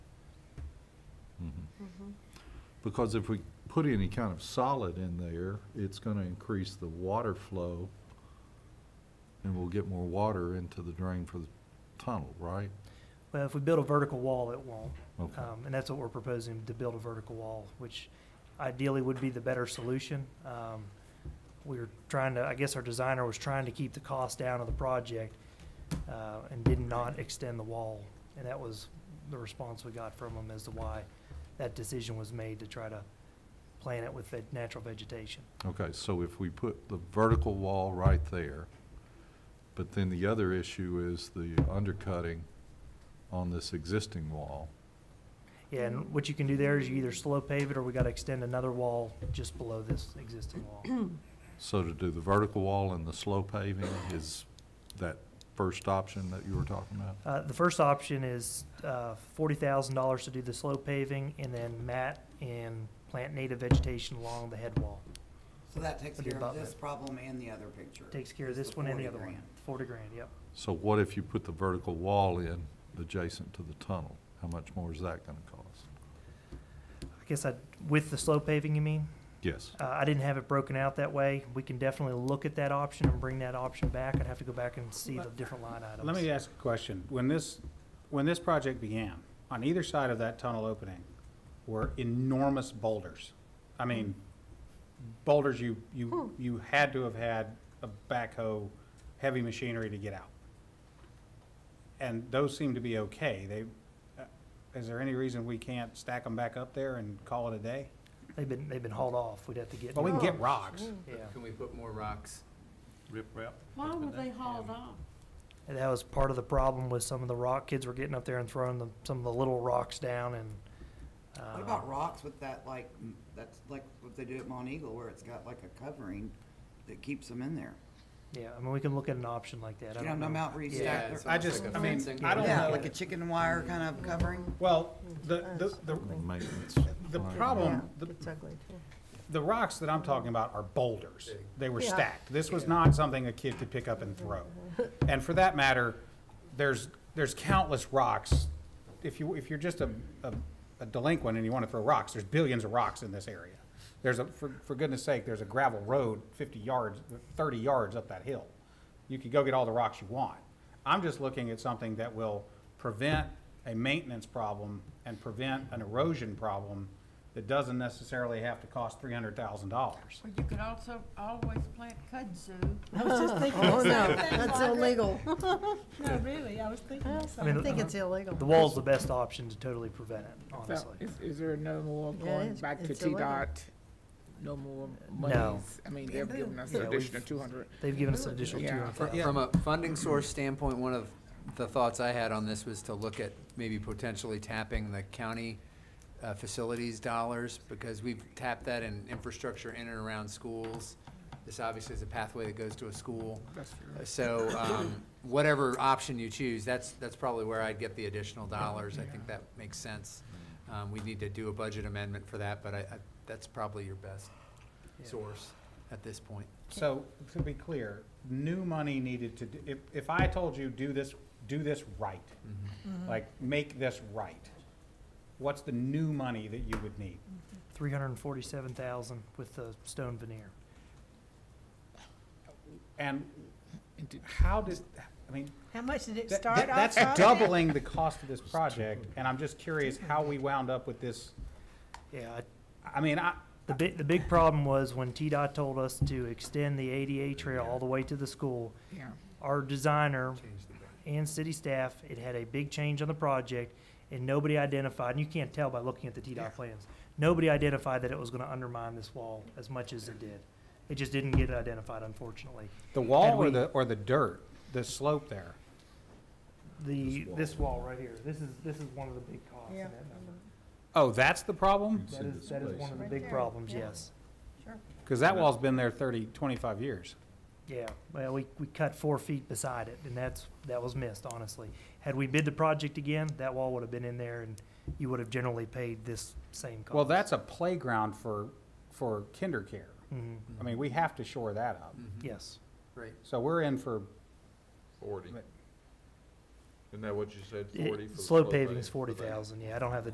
Because if we put any kind of solid in there, it's gonna increase the water flow, and we'll get more water into the drain for the tunnel, right? Well, if we build a vertical wall, it won't. Okay, Um, and that's what we're proposing, to build a vertical wall, which ideally would be the better solution. Um, we were trying to, I guess our designer was trying to keep the cost down of the project, uh, and did not extend the wall. And that was the response we got from them as to why that decision was made to try to plan it with the natural vegetation. okay, so if we put the vertical wall right there, but then the other issue is the undercutting on this existing wall. Yeah, and what you can do there is you either slow pave it or we gotta extend another wall just below this existing wall. So to do the vertical wall and the slow paving is that first option that you were talking about? Uh, the first option is, uh, forty thousand dollars to do the slow paving and then mat and plant native vegetation along the head wall. So that takes For the care of abutment. this problem and the other picture. Takes care of It's this one and the 40 other one. grand. Forty grand, yep. So what if you put the vertical wall in adjacent to the tunnel? How much more is that gonna cost? I guess I, with the slow paving, you mean? Yes, Uh, I didn't have it broken out that way. We can definitely look at that option and bring that option back. I'd have to go back and see the different line items. Let me ask a question. When this, when this project began, on either side of that tunnel opening were enormous boulders. I mean, boulders you, you, you had to have had a backhoe, heavy machinery to get out. And those seem to be okay. They, uh, is there any reason we can't stack them back up there and call it a day? They've been, they've been hauled off. We'd have to get. Well, we can new- get rocks. Yeah. Can we put more rocks? Rip rap? Why were they hauled off? And that was part of the problem with some of the rock kids were getting up there and throwing the, some of the little rocks down and. uh, What about rocks with that like, m- that's like what they do at Mont Eagle where it's got like a covering that keeps them in there? Yeah, I mean, we can look at an option like that. I You know, don't no know. mount Yeah, restack. it's I almost just- like a I mean, fencing. I don't Yeah, know. like a chicken wire kind of covering. Well, the, the, the, and maintenance. the Right. problem, the, It's ugly, too. The rocks that I'm talking about are boulders. They were Yeah. stacked. This was not something a kid could pick up and throw. And for that matter, there's, there's countless rocks. If you, if you're just a, a- a delinquent and you want to throw rocks, there's billions of rocks in this area. There's a, for, for goodness sake, there's a gravel road fifty yards, thirty yards up that hill. You could go get all the rocks you want. I'm just looking at something that will prevent a maintenance problem and prevent an erosion problem that doesn't necessarily have to cost three hundred thousand dollars. Well, you could also always plant kudzu. I was just thinking, oh, no, that's illegal. No, really, I was thinking the I mean, I think it's illegal. The wall's the best option to totally prevent it, So, honestly. Is, is there no more Yeah, going it's- back to it's illegal. T-Dot? No more No. monies? I mean, they've given us Yeah, an we've- additional two hundred. They've given us an additional two Yeah. hundred thousand. From a funding source standpoint, one of the thoughts I had on this was to look at maybe potentially tapping the county uh, facilities dollars, because we've tapped that in infrastructure in and around schools. This obviously is a pathway that goes to a school. That's fair. So, um, whatever option you choose, that's, that's probably where I'd get the additional dollars. I think that makes sense. Um, we need to do a budget amendment for that, but I, I, that's probably your best source at this point. So, to be clear, new money needed to, do- if, if I told you, do this, do this right, Mm-hmm. like, make this right, what's the new money that you would need? Three hundred and forty-seven thousand with the stone veneer. And how does, I mean, How much did it that- start that- off? that's doubling the cost of this project, and I'm just curious how we wound up with this, Yeah, I- I mean, I, the big, the big problem was when TDOT told us to extend the ADA trail all the way to the school, Yeah. our designer Change the budget. and city staff, it had a big change on the project, and nobody identified, and you can't tell by looking at the TDOT plans, nobody identified that it was gonna undermine this wall as much as it did. It just didn't get identified, unfortunately. the And wall or we- the, or the dirt, the slope there? The, this wall right here, this is, this is one of the big costs in Yeah. Mm-hmm. that number. Oh, that's the problem? It's That in is, the that is space. one of the Right big there, problems, yeah. yes. Because that wall's been there thirty, twenty-five years. Yeah, well, we, we cut four feet beside it, and that's, that was missed, honestly. Had we bid the project again, that wall would have been in there, and you would have generally paid this same cost. Well, that's a playground for, for kinder care. Mhm, I mean, we have to shore that up. Mm-hmm. yes. Right. So we're in for, Forty. But- Isn't that what you said, It- forty for the Slow slow paving pave- is for forty the- thousand, yeah, I don't have the